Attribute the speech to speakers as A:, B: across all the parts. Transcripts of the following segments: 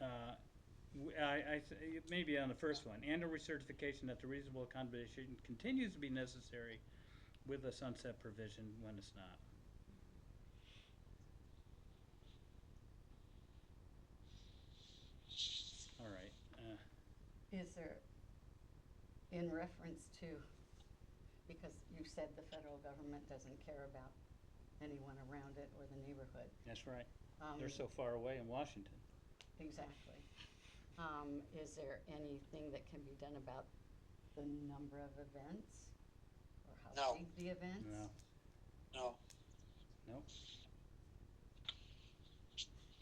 A: Uh, I, I, th- it may be on the first one, and a recertification that the reasonable accommodation continues to be necessary with a sunset provision when it's not. All right, uh,
B: Is there, in reference to, because you said the federal government doesn't care about anyone around it or the neighborhood.
A: that's right.
B: Um,
A: They're so far away in Washington.
B: Exactly. Um, Is there anything that can be done about the number of events? Or how
C: No.
B: big the events?
A: No,
C: No,
A: nope.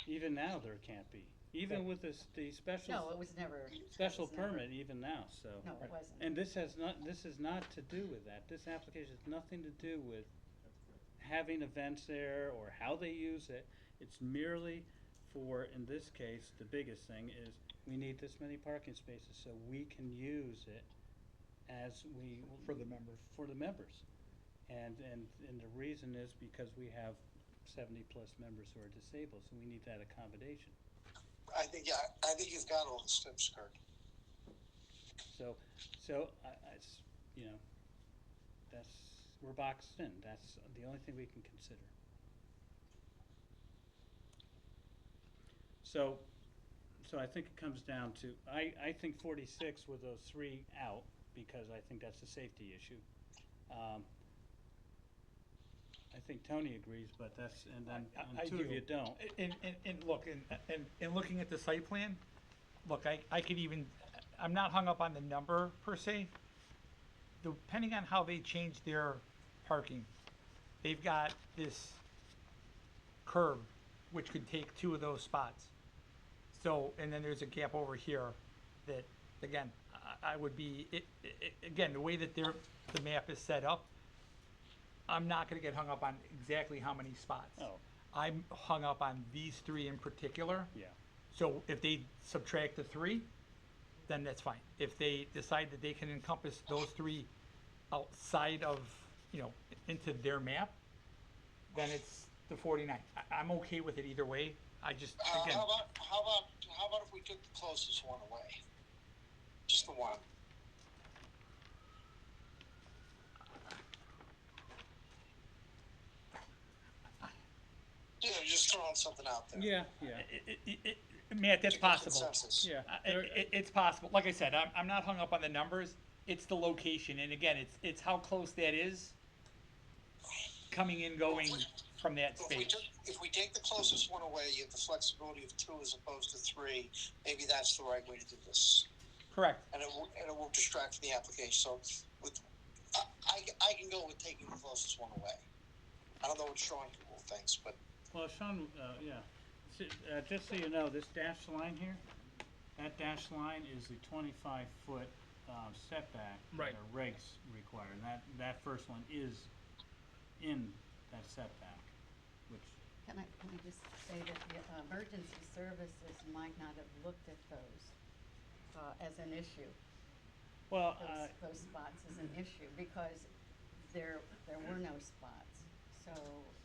A: Even now, there can't be, even with this, the special.
B: No, it was never.
A: special
B: it was never-
A: permit even now, so.
B: No, it wasn't.
A: And this has not, this is not to do with that. This application has nothing to do with having events there or how they use it. It's merely for, in this case, the biggest thing is we need this many parking spaces so we can use it as we.
D: For the members.
A: For the members. And, and, and the reason is because we have seventy-plus members who are disabled, so we need that accommodation.
C: I think yeah, I think you've got all the steps, Kurt.
A: So, so I, I s- you know, that's, we're boxed in. That's the only thing we can consider. So, so I think it comes down to, I, I think forty-six with those three out, because I think that's a safety issue. Um, I think Tony agrees, but that's, and then,
E: I-
A: and
E: I
A: two of
E: do.
A: you don't.
E: And, and, and look, and, and, and looking at the site plan, look, I, I could even, I'm not hung up on the number per se. Depending on how they change their parking, they've got this curb, which could take two of those spots. So, and then there's a gap over here that, again, I, I would be, it, it, again, the way that their, the map is set up, I'm not gonna get hung up on exactly how many spots.
A: Oh.
E: I'm hung up on these three in particular.
A: Yeah.
E: So if they subtract the three, then that's fine. If they decide that they can encompass those three outside of, you know, into their map, then it's the 49. I, I'm okay with it either way. I just,
C: Uh,
E: again,
C: how about how about how about if we took the closest one away? Just the one. Yeah, just throwing something out there.
A: Yeah, yeah,
E: i i i i Matt, that's
C: Take a
E: possible.
C: consensus.
A: yeah.
E: I- Uh, it, it's possible. Like I said, I'm, I'm not hung up on the numbers. It's the location, and again, it's it's how close that is coming and going from that
C: If we
E: space.
C: took, if we take the closest one away, you have the flexibility of two as opposed to three. Maybe that's the right way to do this,
E: Correct.
C: and it will, and it will distract from the application. So, with I, I, I can go with taking the closest one away. I don't know what Sean thinks, but
A: Well, Sean, uh, yeah, S- uh, just so you know, this dashed line here, that dashed line is the twenty-five foot, um, setback.
E: Right.
A: That our regs require, and that, that first one is in that setback, which,
B: Can I, can I just say that the uh, emergency services might not have looked at those uh, as an issue?
A: well, uh,
B: Those, those spots as an issue because there, there were no spots, so.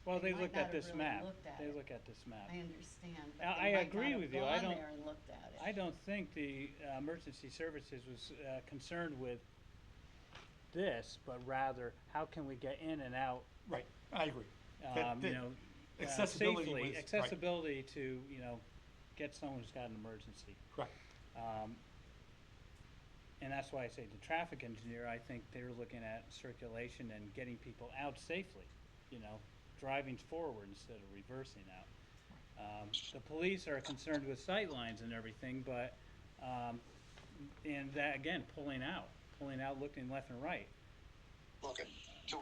A: well, they
B: might
A: looked at
B: not have
A: this
B: really
A: map.
B: looked at
A: They
B: it.
A: look at this map.
B: I understand, but
A: Now, I
B: they might
A: agree
B: not
A: with
B: have
A: you. I
B: gone
A: don't-
B: there and looked at it.
A: I don't think the uh, emergency services was uh, concerned with this, but rather, how can we get in and out
E: Right. I agree. That-
A: um,
E: that-
A: you know, uh,
E: accessibility
A: safely-
E: was- right.
A: accessibility to, you know, get someone who's got an emergency.
E: Correct.
A: Um, and that's why I say the traffic engineer, I think they're looking at circulation and getting people out safely, you know, driving forward instead of reversing out. Um, the police are concerned with sight lines and everything, but, um, and that, again, pulling out, pulling out, looking left and right.
C: look at.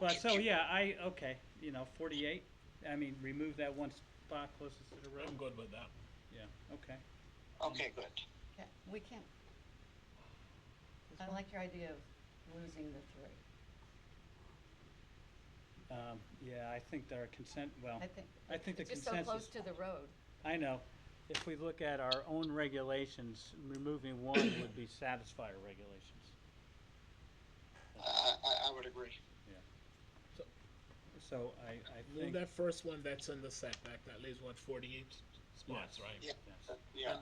A: But so, yeah, I, okay, you know, forty-eight, I mean, remove that one spot closest to the road. I'm good with that. Yeah, okay.
C: Okay, good.
B: Yeah, We can't. I like your idea of losing the three.
A: Um, yeah, I think our consent, well,
B: I think.
A: I think the
B: Just so close
A: consensus,
B: to the road.
A: I know. If we look at our own regulations, removing one would be satisfy our regulations.
C: I, I, I would agree.
A: So I, I
F: Well,
A: think.
F: that first one that's in the setback, that leaves what, forty-eight spots,
A: Yes.
F: right?
C: Yeah.
A: yes.
C: Yeah.